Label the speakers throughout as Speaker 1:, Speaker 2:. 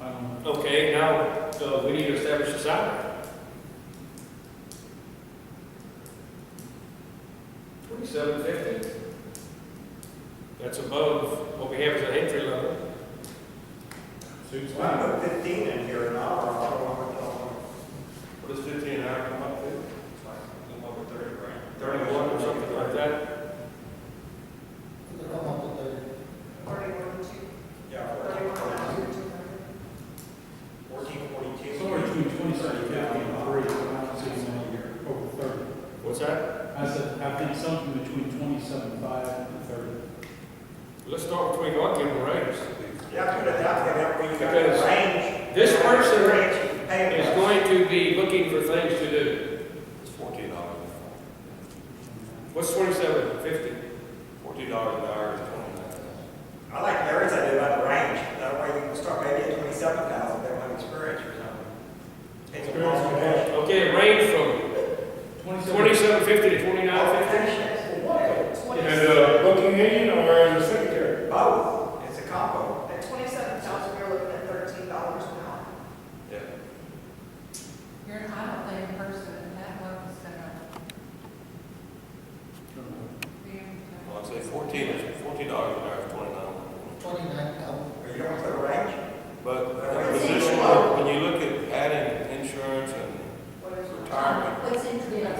Speaker 1: I don't know.
Speaker 2: Um, Okay, now, uh, we need to establish a salary. Twenty-seven fifty. That's above what we have as an entry level.
Speaker 1: Suits
Speaker 3: Well, I put fifteen in here an hour, I don't want to tell
Speaker 1: What does fifteen an hour come up to?
Speaker 3: them, I'm over thirty grand.
Speaker 2: Thirty-one or something like that.
Speaker 4: Thirty-one, two,
Speaker 3: Yeah,
Speaker 4: thirty-one, two,
Speaker 3: fourteen, fourteen, forty-two.
Speaker 1: Somewhere between twenty-seven and fifty and three, I can see some here, over thirty.
Speaker 2: What's that?
Speaker 1: I said, I think something between twenty-seven five and thirty.
Speaker 2: Let's start between our given ranges.
Speaker 3: Yeah, put it that way, that way you got
Speaker 2: Because
Speaker 3: a range.
Speaker 2: this person
Speaker 3: Range, pay
Speaker 2: It's
Speaker 3: us.
Speaker 2: going to be looking for things to do.
Speaker 5: It's fourteen dollars,
Speaker 2: What's twenty-seven fifty?
Speaker 5: fourteen dollars an hour is twenty-nine cents.
Speaker 3: I like Larry's idea about the range, that way you can start maybe at twenty-seven thousand, they want experience or something. It's a possibility.
Speaker 2: Okay, range from twenty-seven fifty to twenty-nine fifty?
Speaker 4: thirty.
Speaker 2: uh,
Speaker 1: uh, booking agent or as a secretary?
Speaker 3: Both, it's a combo.
Speaker 4: At twenty-seven thousand, we're looking at thirteen dollars an hour.
Speaker 5: Yeah.
Speaker 6: You're an audit day in person, and that one was set up.
Speaker 5: Well, I'd say fourteen is, fourteen dollars an hour is twenty-nine.
Speaker 7: Twenty-nine thousand.
Speaker 3: But Oh, you don't put a range,
Speaker 5: But
Speaker 3: That
Speaker 5: the
Speaker 3: way it's
Speaker 5: position,
Speaker 3: low.
Speaker 5: when you look at adding insurance and
Speaker 4: What is it?
Speaker 5: retirement,
Speaker 6: What's in
Speaker 5: that'd be
Speaker 6: the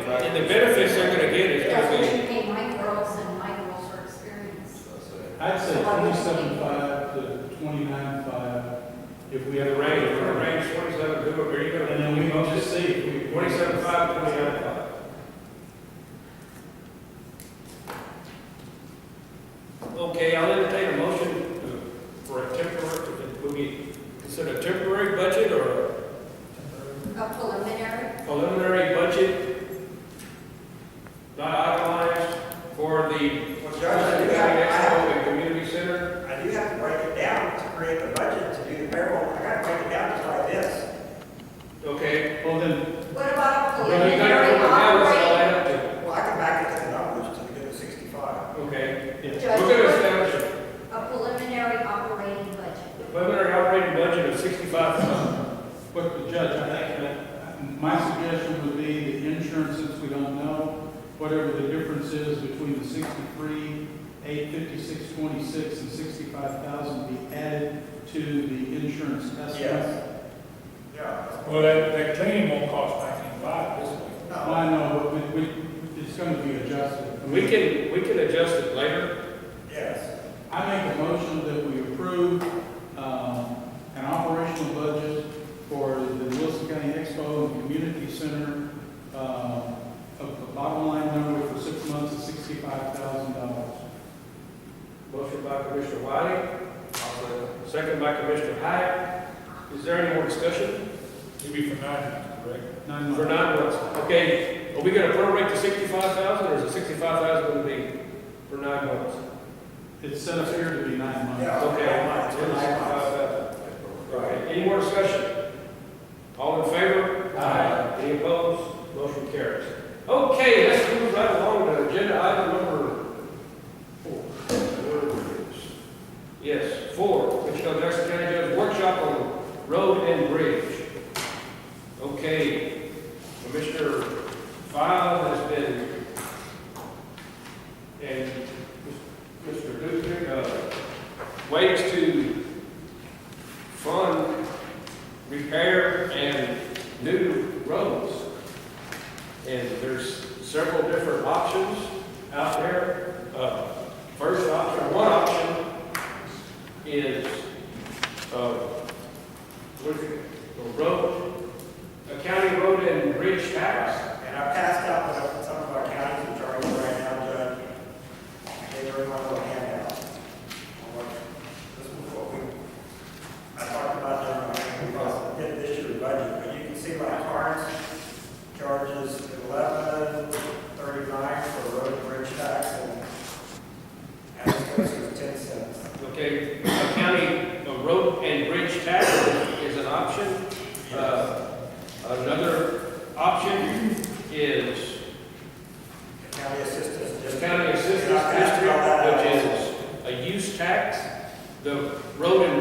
Speaker 5: attractive.
Speaker 2: And the benefits they're gonna get is
Speaker 6: That's
Speaker 2: gonna
Speaker 6: what
Speaker 2: be.
Speaker 6: you pay my girls and my girls are experienced.
Speaker 5: I'd say.
Speaker 1: I'd say twenty-seven five to twenty-nine five, if we have
Speaker 2: The
Speaker 1: a
Speaker 2: range,
Speaker 1: range.
Speaker 2: the range twenty-seven, who are you
Speaker 1: And
Speaker 2: gonna,
Speaker 1: then we can just see if we.
Speaker 2: twenty-seven five, twenty-nine five? Okay, I'll entertain a motion to- for a temporary, would be considered a temporary budget or
Speaker 6: A preliminary,
Speaker 2: a preliminary budget? Not itemized for the
Speaker 3: well, Judge, I do have, I
Speaker 2: Expo and Community Center?
Speaker 3: have, I do have to break it down to create the budget, to do the payroll, I gotta break it down just like this.
Speaker 2: Okay.
Speaker 1: Well, then,
Speaker 6: what about a
Speaker 2: Well, you gotta
Speaker 6: preliminary
Speaker 2: put the numbers all
Speaker 6: operating?
Speaker 2: add up
Speaker 3: Well, I can back it to the numbers to get to sixty-five.
Speaker 2: to- Okay,
Speaker 1: yeah,
Speaker 2: we're gonna establish a
Speaker 6: A preliminary operating budget.
Speaker 2: preliminary operating budget of sixty-five thousand.
Speaker 1: but the judge, I think that, my suggestion would be the insurance, since we don't know, whatever the difference is between the sixty-three, eight fifty-six, twenty-six, and sixty-five thousand be added to the insurance estimate.
Speaker 3: Yes. Yeah.
Speaker 8: Well, that, that cleaning won't cost nineteen five this way.
Speaker 1: Well, I know, but we, we- it's gonna be adjusted.
Speaker 2: We can, we can adjust it later.
Speaker 3: Yes.
Speaker 1: I make a motion that we approve um, an operational budget for the Wilson County Expo and Community Center um, of the bottom line number for six months is sixty-five thousand dollars.
Speaker 2: Motion by Commissioner Wiley, second by Commissioner Hyatt. Is there any more discussion?
Speaker 8: It'd be for nine months, correct?
Speaker 1: Nine
Speaker 2: For
Speaker 1: months.
Speaker 2: nine months, okay, are we gonna prorate to sixty-five thousand, or is it sixty-five thousand gonna be for nine months?
Speaker 1: It's set up here to be nine months.
Speaker 3: Yeah.
Speaker 2: Okay.
Speaker 3: Nine months.
Speaker 2: It's $65,000. Right, any more discussion? All in favor?
Speaker 1: Aye.
Speaker 2: Any opposed? Motion carries. Okay, let's move right along to agenda item number four. Yes, four, Wichita Jackson County Judge Workshop on Road and Bridge. Okay, Commissioner File has been, and Mr. Duke, uh, ways to fund repair and new roads. And there's several different options out there. Uh, First option, one option is, uh, what is it? the road, a county road and bridge tax.
Speaker 3: And I passed out what some of our counties are charging right now, Judge. They were my little handout. This is what we, I talked about that, when we crossed- did this year's budget, but you can see my cards charges eleven thirty-nine for road and bridge tax and Atascosa is ten cents.
Speaker 2: Okay, a county, a road and bridge tax is an option. Uh, Another option is
Speaker 3: County assistance
Speaker 2: the
Speaker 3: district.
Speaker 2: county assistance
Speaker 3: And I passed
Speaker 2: district,
Speaker 3: out that.
Speaker 2: which is a use tax. The road and